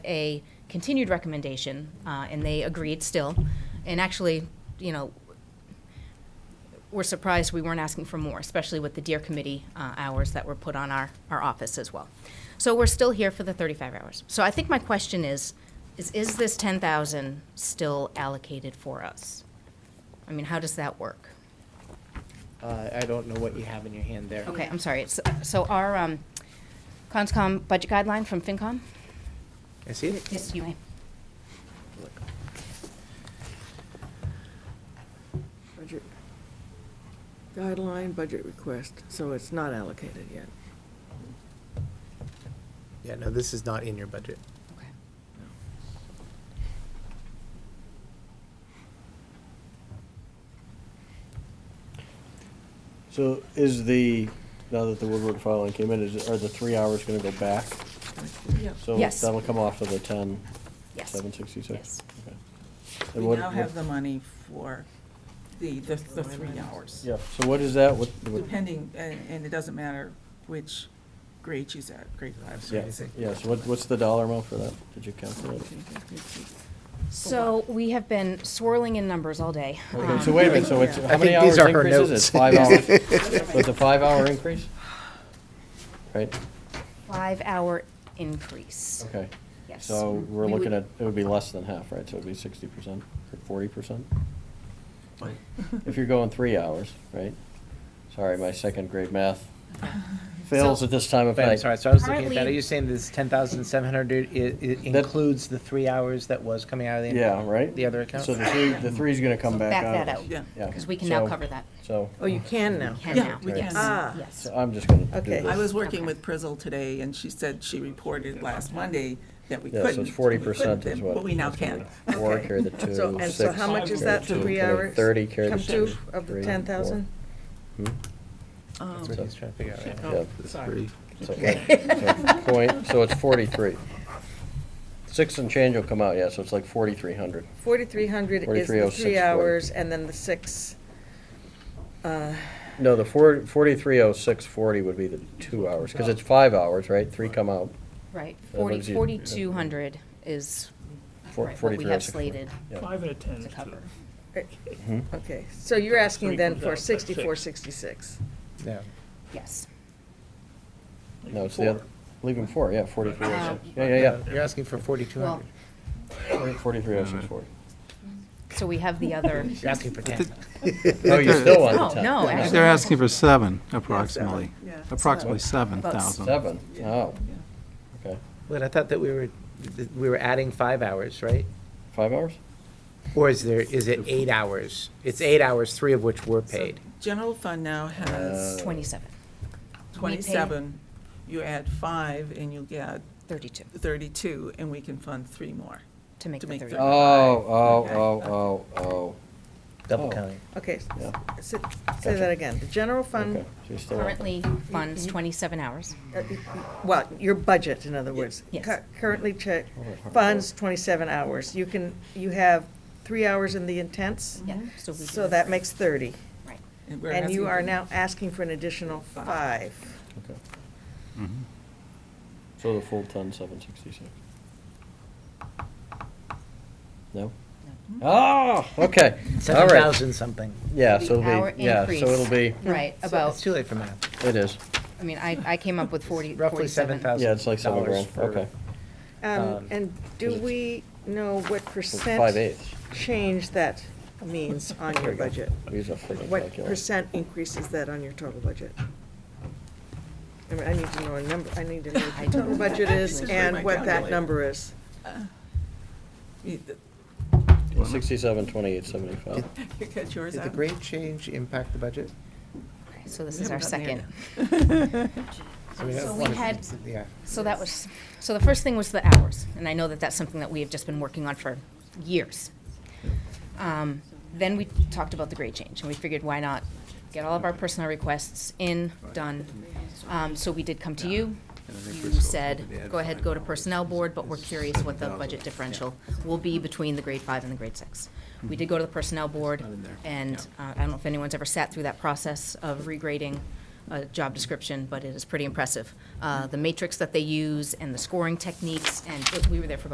a continued recommendation, uh, and they agreed still. And actually, you know, we're surprised we weren't asking for more, especially with the deer committee uh, hours that were put on our, our office as well. So we're still here for the 35 hours. So I think my question is, is, is this 10,000 still allocated for us? I mean, how does that work? Uh, I don't know what you have in your hand there. Okay, I'm sorry. It's- So our um, CONSCOM budget guideline from FinCom? I see it. Yes, you may. Budget guideline, budget request, so it's not allocated yet. Yeah, no, this is not in your budget. Okay. So is the, now that the Woodward filing came in, is, are the three hours gonna go back? Yep. So Yes. that'll come off of the ten, Yes. seven sixty-six? Yes. We now have the money for the, the, the three hours. Yeah, so what is that, what, what- Depending, and, and it doesn't matter which grade she's at, grade five. yeah, yeah, so what, what's the dollar amount for that? Did you calculate? it? So we have been swirling in numbers all day. Um, Okay, so wait a minute, so it's, I how many think these hours are her increase is it? notes. Five hours? So it's a five-hour increase? Right, Five-hour increase. okay. Yes. So we're We looking would- at, it would be less than half, right? So it'd be sixty percent or forty percent? If you're going three hours, right? Sorry, my second grade math fails So- at this time of Wait, I'm night. sorry, so I was looking at that, are Currently- you saying this ten thousand seven hundred, it, it That- includes the three hours that was coming out of the? Yeah, right? The other account? So the three, the three's gonna come So back back out. that out. Yeah. Yeah. Because we can now So- cover that. So, Oh, you can now. Can Yeah, now. we Yes. can. Ah. Yes. so I'm just gonna do Okay. this. I was working Okay. with Prizzle today, and she said she reported last Monday that we Yeah, couldn't. so it's 40% we couldn't, is what- But we now that's what can. we- Four Okay. carry the two, So, and so six how much is carry that, the two, three carry the hours? Thirty carry the Come to six, of three, the four. ten thousand? Hmm? um, That's what Oh. he's trying to figure out right now. Yeah. Sorry. So, right, so Point, so it's forty-three. Six and change will come out, yeah, so it's like forty-three hundred. Forty-three hundred is 43, the oh, six, three forty. hours, and then the six. uh, No, the four, forty-three oh six forty would be the two hours, because it's five hours, right? Three come out. Right. That Forty, leaves you- forty-two hundred is Four- right, what we 43 have 06. slated Yeah. Five and a ten is to two. cover. Mhm. Okay, so you're asking Three then comes for out, that's six. sixty-four, sixty-six. Yeah. Yes. like No, it's the, four. oth- leaving four, yeah, forty-three oh Uh, six. Yeah, yeah, You're asking for forty-two Well, hundred, yeah. Forty-three oh six forty. so we have the other, you're asking for ten. Oh, you still want No, the ten? no, Yeah. Oh, actually- They're asking for seven, approximately. Yeah. Approximately seven thousand. Seven, oh, okay. But I thought that we were, that we were adding five hours, right? Five hours? Or is there, is it eight hours? It's eight hours, three of which were So paid. General fund now Uh, has twenty-seven, we paid- twenty-seven. You add five, and you get thirty-two, 32, and we can fund three more. to make To the make thirty. the- Oh, oh, oh, oh, oh. Double Oh. counting. Okay, s- Yeah. s- say that again. The general Okay, fund, so you still want the- Currently funds twenty-seven hours. uh, y- y- well, your budget, in other words. Yes. Cur- Currently check, Oh, hard work. funds twenty-seven hours. You can, you have three hours in the intense, Yeah. Mm-hmm. So we so do- that makes thirty. Right. we're And asking you are for- now asking for an additional five. Okay. Mm-hmm. So the full ten, seven sixty-six. No? Hmm? Oh, okay, all Seven right. thousand something. Yeah, The so hour it'll be, yeah, increase. so it'll be, Right, So It's about, too late for math. it is. I mean, I, I came up with forty, Roughly forty-seven. seven thousand. Yeah, it's like seven grand, okay. Um, Um, And do it's- we know what It's percent? Five eighths. Change that means on There your you go. budget. Use a freaking What calculator. percent increase is that on your total budget? I mean, I need to know a number, I need to know I what the don't- total budget is This is my and what that calculator. number is. You Sixty-seven, twentyeight, seventy-five. you cut yours Did out? the grade change impact the budget? So this We is our haven't gotten second. there So we So have we one- had- Yeah. So that was, so the first thing was the hours, and I know that that's something that we have just been working on for years. Um, Then we talked about the grade change, and we figured why not get all of our personnel requests in, done. Um, So we did come to you. You said, go ahead, go to Personnel Board, but we're curious what the budget differential will be between the grade five and the grade six. We did go to the Personnel Board, and uh, I don't know if anyone's ever sat through that process of regrading a job description, but it is pretty impressive. Uh, The matrix that they use and the scoring techniques, and it- we were there for about